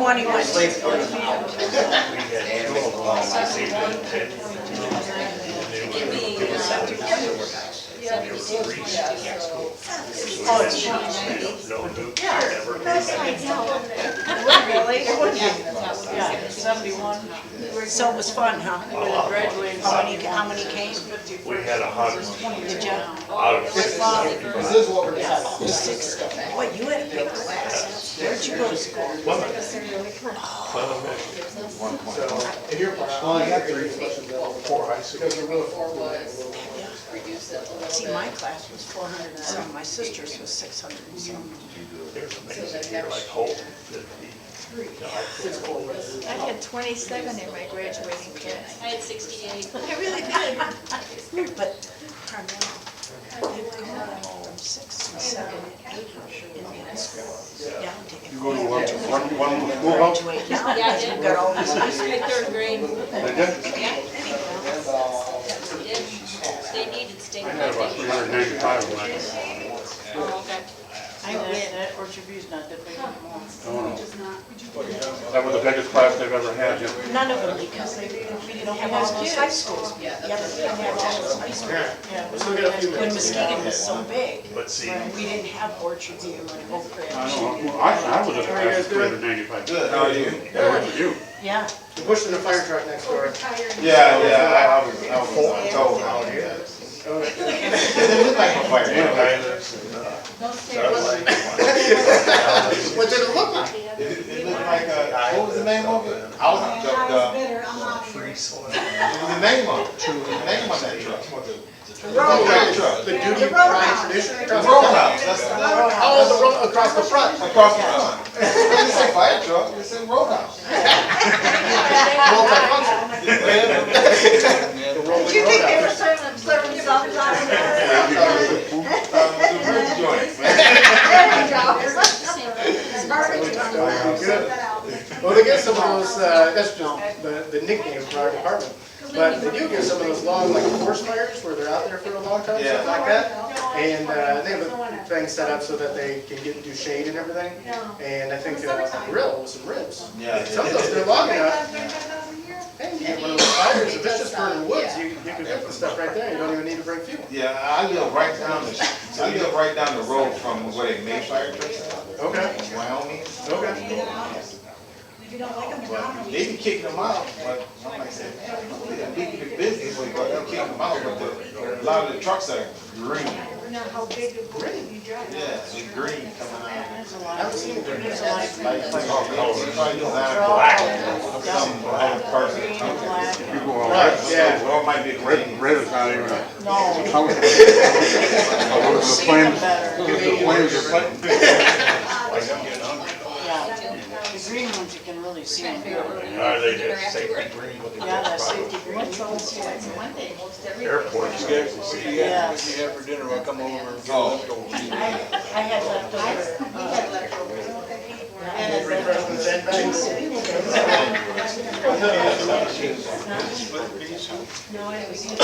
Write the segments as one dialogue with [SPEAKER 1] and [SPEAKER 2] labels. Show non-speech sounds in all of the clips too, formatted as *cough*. [SPEAKER 1] twenty-one. Really? Yeah,
[SPEAKER 2] Seventy-one.
[SPEAKER 1] So it was fun, huh?
[SPEAKER 2] Graduated.
[SPEAKER 1] How many, how many came?
[SPEAKER 2] Fifty-four.
[SPEAKER 3] We had a hundred
[SPEAKER 1] Did you?
[SPEAKER 3] out of six.
[SPEAKER 4] Is this what we're talking about?
[SPEAKER 1] Six. What, you had a big class. Where'd you go to school?
[SPEAKER 3] Women.
[SPEAKER 4] So, and you're, well, you got three questions. Four, I see. Because we're really four was.
[SPEAKER 1] See, my class was four hundred and some, my sister's was six hundred and some.
[SPEAKER 3] There's amazing, you're like, holy, fifty.
[SPEAKER 5] I had twenty-seven in my graduating class.
[SPEAKER 6] I had sixty-eight.
[SPEAKER 1] I really did. But Carmel, they've gone from six and seven, eight Indian school down to. You go to one, one schoolhouse? Now,
[SPEAKER 6] Yeah, I
[SPEAKER 1] because
[SPEAKER 6] did.
[SPEAKER 1] we've got all these
[SPEAKER 6] My third grade. Yeah,
[SPEAKER 4] Uh,
[SPEAKER 6] I did. They needed state. funding. Oh, okay.
[SPEAKER 2] I win at Orchard View's not that big anymore.
[SPEAKER 7] That was the biggest class they've ever had, yeah.
[SPEAKER 1] None of them, because they, we didn't have all those high schools. Yeah, but we didn't have all those high schools.
[SPEAKER 2] Yeah.
[SPEAKER 1] When Muskegon was so big,
[SPEAKER 3] But see,
[SPEAKER 1] we didn't have Orchard View and Oak
[SPEAKER 7] I
[SPEAKER 1] Ridge.
[SPEAKER 7] don't know, I, I was at a class of three hundred ninety-five. Good, how are you? How are you?
[SPEAKER 1] Yeah.
[SPEAKER 4] You're pushing the fire truck next door.
[SPEAKER 8] Yeah, yeah, I, I was, I was told how it is. It looked like a fire.
[SPEAKER 7] Yeah, I-
[SPEAKER 4] What did it look like?
[SPEAKER 8] It, it looked like a, what was the name of it? I was, the, the. What was the name of it? What was the name of that truck?
[SPEAKER 3] Oh,
[SPEAKER 8] Roadhouse.
[SPEAKER 4] The
[SPEAKER 8] Truck.
[SPEAKER 4] duty Ryan tradition?
[SPEAKER 8] The Roadhouse, that's the name.
[SPEAKER 4] Oh, the road across the front.
[SPEAKER 8] Across the front. It didn't say fire truck, it said roadhouse.
[SPEAKER 7] *laughs*
[SPEAKER 4] Multi-function. The rolling
[SPEAKER 1] were
[SPEAKER 4] roadhouse.
[SPEAKER 1] trying to slurp themselves out of
[SPEAKER 8] Uh, the rib joint, man.
[SPEAKER 4] Well, they get some of those, uh, that's not the the nickname for our department, but they do get some of those long, like horse fires where they're out there for a long time,
[SPEAKER 8] Yeah.
[SPEAKER 4] stuff like that. And uh, they have a thing set up so that they can get, do shade and everything. And I think uh, a grill with some ribs.
[SPEAKER 8] Yeah.
[SPEAKER 4] Some of those, they're long enough. Hey, you get one of those fires, if it's just burning woods, you you can cook the stuff right there, you don't even need to bring fuel.
[SPEAKER 8] Yeah, I live right down the, I live right down the road from where they made fire trucks out,
[SPEAKER 4] Okay,
[SPEAKER 8] in Wyoming.
[SPEAKER 4] okay.
[SPEAKER 8] But they be kicking them out, but like I said, they're big in the business, but they're kicking them out, but the, a lot of the trucks are green. Yeah, they're green coming out.
[SPEAKER 4] I haven't seen it.
[SPEAKER 8] Like, like, oh, they probably designed black, some black person.
[SPEAKER 7] You go all
[SPEAKER 4] Right,
[SPEAKER 7] right.
[SPEAKER 4] yeah.
[SPEAKER 8] Well, it might be green.
[SPEAKER 7] Red, red is not even a.
[SPEAKER 2] No.
[SPEAKER 7] I was- I was the
[SPEAKER 2] Seen
[SPEAKER 7] planes,
[SPEAKER 2] them better.
[SPEAKER 7] the planes are
[SPEAKER 2] Yeah. The green ones, you can really see them.
[SPEAKER 3] are they just safety green?
[SPEAKER 2] Yeah, that safety green. you can see it.
[SPEAKER 3] Airports,
[SPEAKER 2] Yes.
[SPEAKER 8] Oh.
[SPEAKER 2] I had leftover.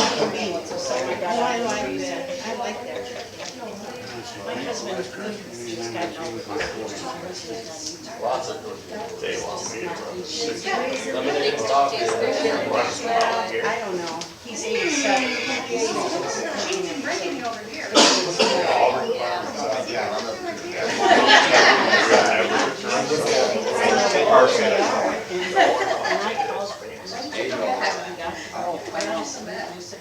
[SPEAKER 5] Oh, I like that, I like that.
[SPEAKER 1] My husband just got an old car.
[SPEAKER 3] they want me to run six.
[SPEAKER 1] I don't know. He's eighty-seven. And I called for him. I said,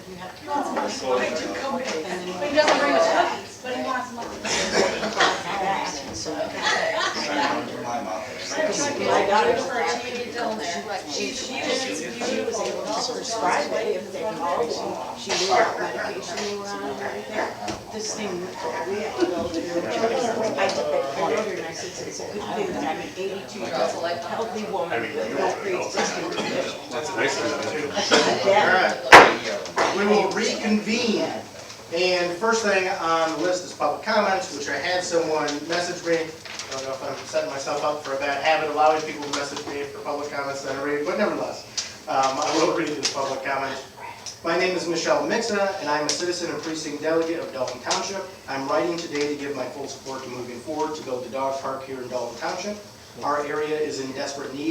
[SPEAKER 1] you have to call. I do come with him. And then he
[SPEAKER 6] doesn't bring us cookies, but he wants money.
[SPEAKER 1] got back, and so I got- My daughter's
[SPEAKER 6] She's
[SPEAKER 1] prescribed it if they called. She knew what medication they were on and everything. This thing, we have to go to. I took that call and I said, it's a good thing that I'm an eighty-two year old healthy woman with no pre-existing condition. Yeah.
[SPEAKER 4] We will reconvene. And the first thing on the list is public comments, which I had someone message me. I don't know if I'm setting myself up for a bad habit, allowing people to message me for public comments that I read, but nevertheless, um, I will read the public comment. My name is Michelle Mixa, and I'm a citizen and precinct delegate of Dalton Township. I'm writing today to give my full support to moving forward to build the dog park here in Dalton Township. Our area is in desperate need